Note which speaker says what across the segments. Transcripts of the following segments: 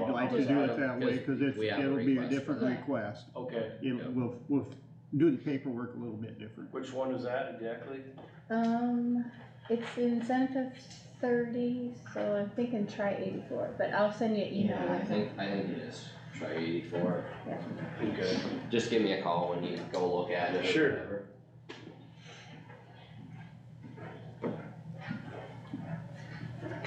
Speaker 1: like to do it that way, cause it's,
Speaker 2: We have a
Speaker 1: it'll be a
Speaker 2: request
Speaker 1: different
Speaker 3: for that.
Speaker 1: request.
Speaker 4: Oh, Okay,
Speaker 1: It'll, we'll, we'll do the paperwork a little bit different.
Speaker 4: which one is that exactly?
Speaker 3: Um, it's incentive thirty, so I'm thinking try eighty-four, but I'll send you an email
Speaker 2: Yeah, I
Speaker 3: with it.
Speaker 2: think, I think you just try eighty-four,
Speaker 4: Okay.
Speaker 2: just give me a call when you go look at it or
Speaker 4: Sure.
Speaker 2: whatever.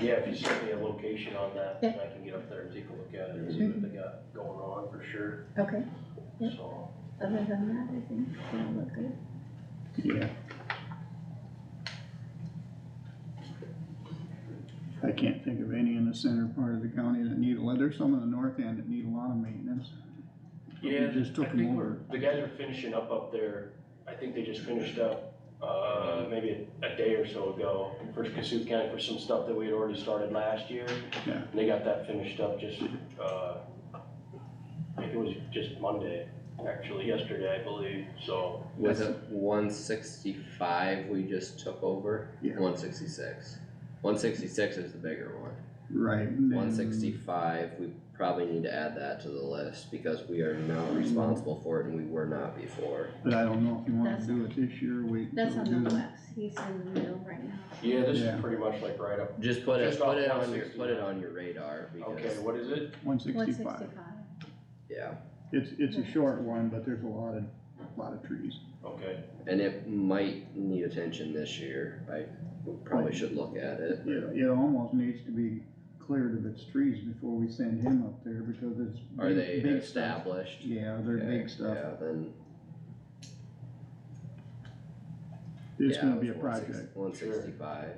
Speaker 4: Yeah, if you send me a location on that,
Speaker 3: Yeah.
Speaker 4: I can get up there and take a look at it and see what they got going on for sure,
Speaker 3: Okay, Yeah.
Speaker 4: so.
Speaker 3: other than that, I think it's gonna look good.
Speaker 1: Yeah. I can't think of any in the center part of the county that need, well, there's some in the north end that need a lot of maintenance. We
Speaker 4: Yeah,
Speaker 1: just took
Speaker 4: I
Speaker 1: them
Speaker 4: think
Speaker 1: over.
Speaker 4: we're- The guys are finishing up up there, I think they just finished up, uh, maybe a day or so ago for Cassuth County for some stuff that we had already started last year.
Speaker 1: Yeah.
Speaker 4: And they got that finished up just, uh, I think it was just Monday, actually, yesterday, I believe, so.
Speaker 2: Was it one sixty-five we just took over?
Speaker 1: Yeah.
Speaker 2: One sixty-six. One sixty-six is the bigger one.
Speaker 1: Right. and
Speaker 4: Mm.
Speaker 1: then-
Speaker 2: One sixty-five, we probably need to add that to the list because we are now responsible for it and we were not before.
Speaker 1: But I don't know if you wanna
Speaker 3: That's-
Speaker 1: do it this year, wait.
Speaker 3: That's
Speaker 1: till we
Speaker 3: on
Speaker 1: do
Speaker 3: the
Speaker 1: it.
Speaker 3: west, he's in the middle right now.
Speaker 4: Yeah, this
Speaker 1: Yeah.
Speaker 4: is pretty much like right up,
Speaker 2: Just put it,
Speaker 4: Just off
Speaker 2: put it on your,
Speaker 4: 160.
Speaker 2: put it on your radar
Speaker 4: okay,
Speaker 2: because,
Speaker 4: what is it?
Speaker 1: One
Speaker 3: One
Speaker 1: sixty-five.
Speaker 3: sixty-five.
Speaker 2: yeah,
Speaker 1: It's, it's a short one, but there's a lot of, lot of trees.
Speaker 4: Okay,
Speaker 2: and it might need attention this year. I we probably should look at it.
Speaker 1: It, it almost needs to be cleared of its trees before we send him up there because it's.
Speaker 2: Are
Speaker 1: big-
Speaker 2: they
Speaker 1: big stuff.
Speaker 2: established?
Speaker 1: Yeah, they're
Speaker 2: Okay,
Speaker 1: big stuff.
Speaker 2: Yeah, then.
Speaker 1: It's gonna be a project.
Speaker 2: One sixty-five.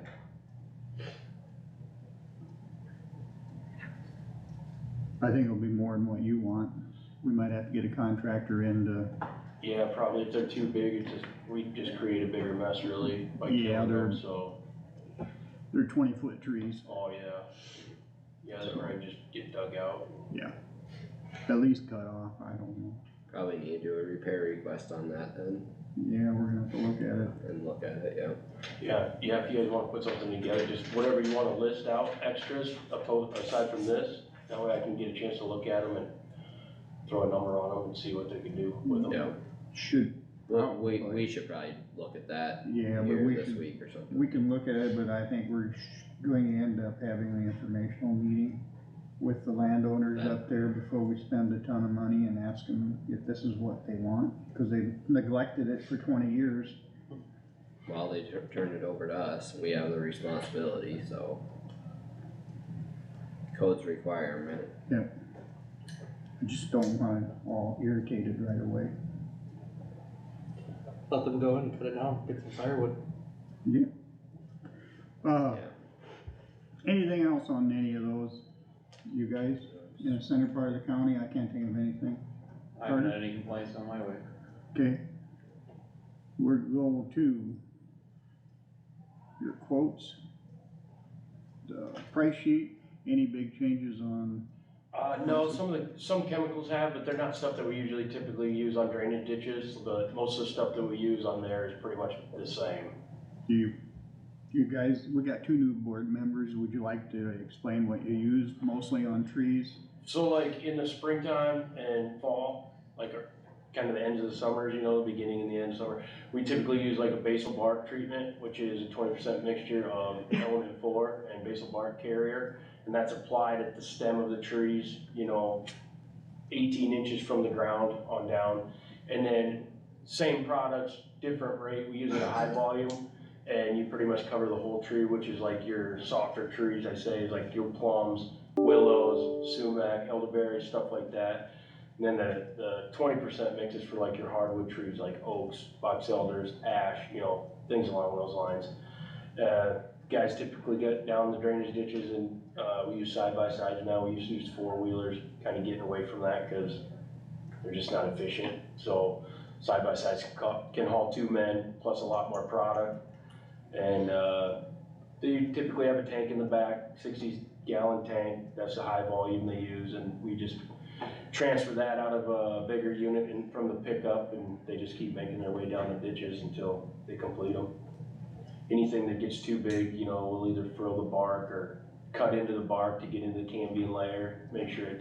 Speaker 1: I think it'll be more than what you want. We might have to get a contractor in to,
Speaker 4: yeah, probably if they're too big, it just, we just create a bigger mess really by
Speaker 1: Yeah,
Speaker 4: killing
Speaker 1: they're-
Speaker 4: them, so.
Speaker 1: they're twenty foot trees,
Speaker 4: Oh, yeah. Yeah, that might just get dug out.
Speaker 1: at least cut off, I don't know.
Speaker 2: Probably need to do a repair request on that then
Speaker 1: Yeah, we're gonna have to look at it.
Speaker 2: and look at it, yeah.
Speaker 4: Yeah, yeah, if you guys wanna put something together, just whatever you wanna list out extras apo- aside from this, that way I can get a chance to look at them and throw a number on them and see what they can do with them.
Speaker 2: Yeah,
Speaker 1: Should,
Speaker 2: well, we, we should probably look at that
Speaker 1: yeah, but
Speaker 2: here
Speaker 1: we
Speaker 2: this
Speaker 1: should,
Speaker 2: week or something.
Speaker 1: we can look at it, but I think we're sh- going to end up having an informational meeting with the landowners
Speaker 2: Yeah.
Speaker 1: up there before we spend a ton of money and ask them if this is what they want, cause they've neglected it for twenty years.
Speaker 2: Well, they tur- turned it over to us, we have the responsibility, so. Code's requirement,
Speaker 1: I just don't want it all irritated right away.
Speaker 5: Let them go and cut it down, get some firewood.
Speaker 1: Uh,
Speaker 2: yeah.
Speaker 1: anything else on any of those, you guys, in the center part of the county, I can't think of anything,
Speaker 6: I haven't had any complaints on my way.
Speaker 1: okay? We're going to your quotes, the price sheet, any big changes on,
Speaker 4: Uh, no, some of the, some chemicals have, but they're not stuff that we usually typically use on drainage ditches, but most of the stuff that we use on there is pretty much the same.
Speaker 1: do you, you guys, we got two new board members, would you like to explain what you use mostly on trees?
Speaker 4: So like in the springtime and fall, like our, kind of the ends of the summers, you know, the beginning and the end of summer, we typically use like a basal bark treatment, which is a twenty percent mixture of elm and four and basal bark carrier. And that's applied at the stem of the trees, you know, eighteen inches from the ground on down. And then same products, different rate, we use it at high volume. And you pretty much cover the whole tree, which is like your softer trees, I say, is like your plums, willows, sumac, elderberry, stuff like that. And then the, the twenty percent mixes for like your hardwood trees, like oaks, box elders, ash, you know, things along those lines. Uh, guys typically get down the drainage ditches and, uh, we use side by sides now, we used to use four wheelers, kinda getting away from that, cause they're just not efficient, so side by sides can ca- can haul two men, plus a lot more product. And, uh, they typically have a tank in the back, sixty gallon tank, that's the high volume they use, and we just transfer that out of a bigger unit and from the pickup, and they just keep making their way down the ditches until they complete them. Anything that gets too big, you know, we'll either frill the bark or cut into the bark to get into the cambium layer, make sure it